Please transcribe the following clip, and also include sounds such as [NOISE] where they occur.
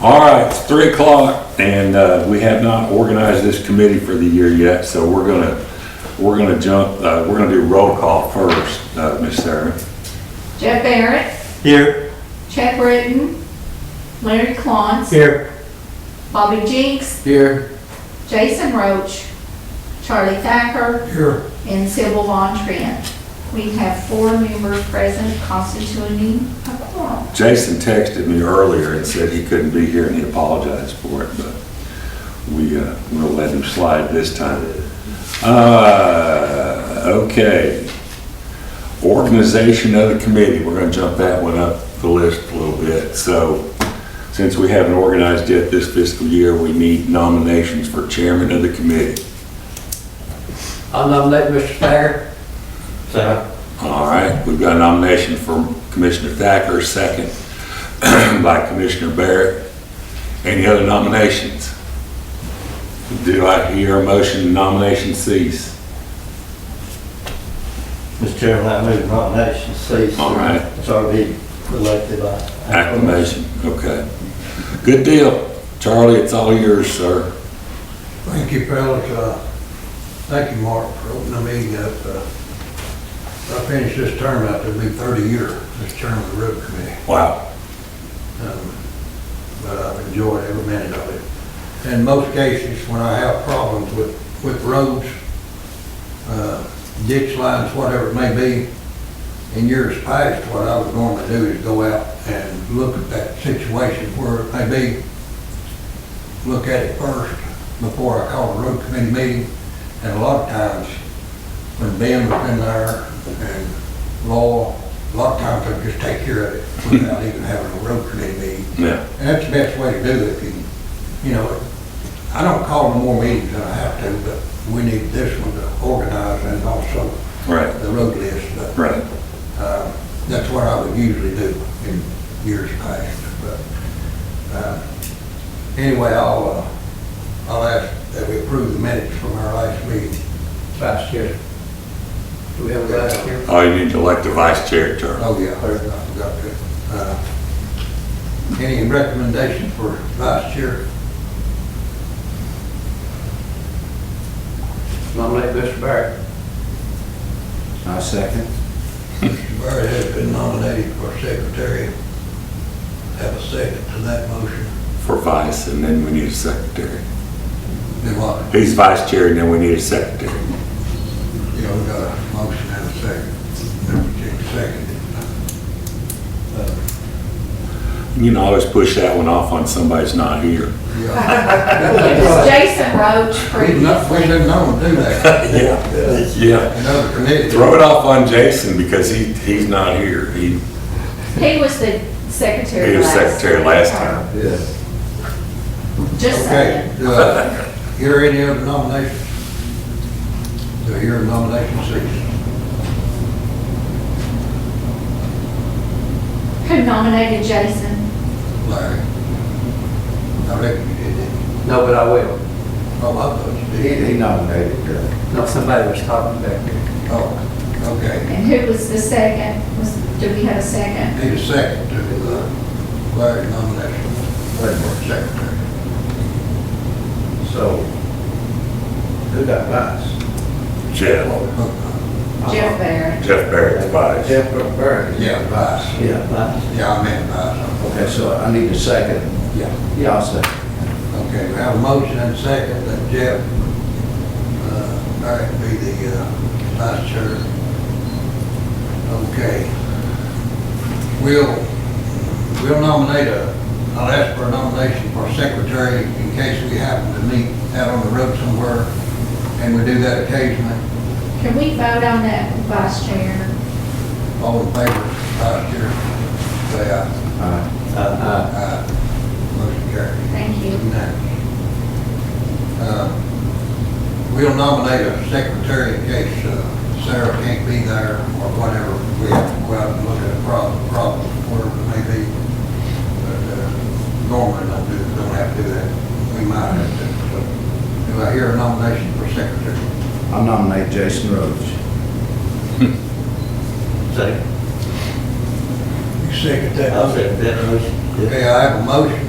All right, it's three o'clock and, uh, we have not organized this committee for the year yet, so we're gonna, we're gonna jump, uh, we're gonna do roll call first, uh, Ms. Sarah. Jeff Barrett, Here. Chuck Britton, Larry Clons, Here. Bobby Jinks, Here. Jason Roach, Charlie Thacker, Here. and Sybil Von Trent. We have four members present constituting a quorum. Jason texted me earlier and said he couldn't be here and he apologized for it, but we, uh, we'll let him slide this time. Uh, okay. Organization of the committee, we're gonna jump that one up the list a little bit. So, since we haven't organized yet this fiscal year, we need nominations for chairman of the committee. I'll nominate Mr. Thacker. Second. All right, we've got a nomination for Commissioner Thacker, second [CLEARS THROAT] by Commissioner Barrett. Any other nominations? Do I hear a motion nomination cease? Mr. Chairman, I move nomination cease. All right. It's already elected by. Acclamation, okay. Good deal. Charlie, it's all yours, sir. Thank you, fellas. Uh, Thank you, Mark, for opening the meeting up. Uh, I finished this term out, it'll be 30 years, this term of the road committee. Wow. Um, But I've enjoyed every minute of it. In most cases, when I have problems with, with roads, uh, ditch lines, whatever it may be, in years past, what I would normally do is go out and look at that situation where it may be, look at it first before I call a road committee meeting. And a lot of times, when Ben was in there and law, a lot of times I just take care of it without even having a road committee meeting. Yeah, And that's the best way to do it, if you, you know, I don't call no more meetings than I have to, but we need this one to organize and also right, the road list, but right. uh, That's what I would usually do in years past, but, uh, anyway, I'll, uh, I'll ask that we approve the minutes from our last meeting. Vice Chair. Do we have a vice chair? Oh, you need to elect the vice chair, Charlie. Oh, yeah, I forgot to. Uh, Any recommendations for vice chair? Nominate Mr. Barrett. I second. Barry has been nominated for secretary. Have a second to that motion. For vice, and then we need a secretary. Then what? He's vice chair, and then we need a secretary. You know, we got a motion and a second. Then we take [LAUGHS] second. You can always push that one off on somebody's not here. It was Jason Roach for We not, we didn't know to do that. Yeah, yeah. Another committee. Throw it off on Jason because he, he's not here. He, He was the secretary. he was last- secretary last time. Yes. Just Okay, saying. uh, hear any other nominations? Do I hear a nomination six? Who nominated Jason? Larry? I reckon you did, didn't you? No, but I will. Oh, I thought you did. nominated her. No, somebody was talking back there. Oh, okay. And who was the second? Was, do we have a second? Need a second to, uh, Larry nomination. Wait for secretary. So, who got vice? Jeff, Oh, Uh-huh. Jeff Barrett. Jeff Barrett's vice. Jeff Burke. Yeah, vice. Yeah, vice. Yeah, I meant vice. Okay, so I need a second. Yeah. Yeah, I'll second. Okay, we have a motion and a second that Jeff, uh, Barrett be the, uh, vice chair. Okay. We'll, we'll nominate a, I'll ask for a nomination for secretary in case we happen to meet out on the road somewhere, and we do that occasionally. Can we vote on that vice chair? All in favor, vice chair, say aye. Uh, Aye. Motion carries. Thank you. Uh, We'll nominate a secretary in case uh, Sarah can't be there or whatever. We have to go out and look at a problem, problem, whatever it may be. But uh, normally don't do, don't have to do that. We might have to. So, Do I hear a nomination for secretary? I nominate Jason Rhodes. Second. You second that? I'll second that motion. Okay, I have a motion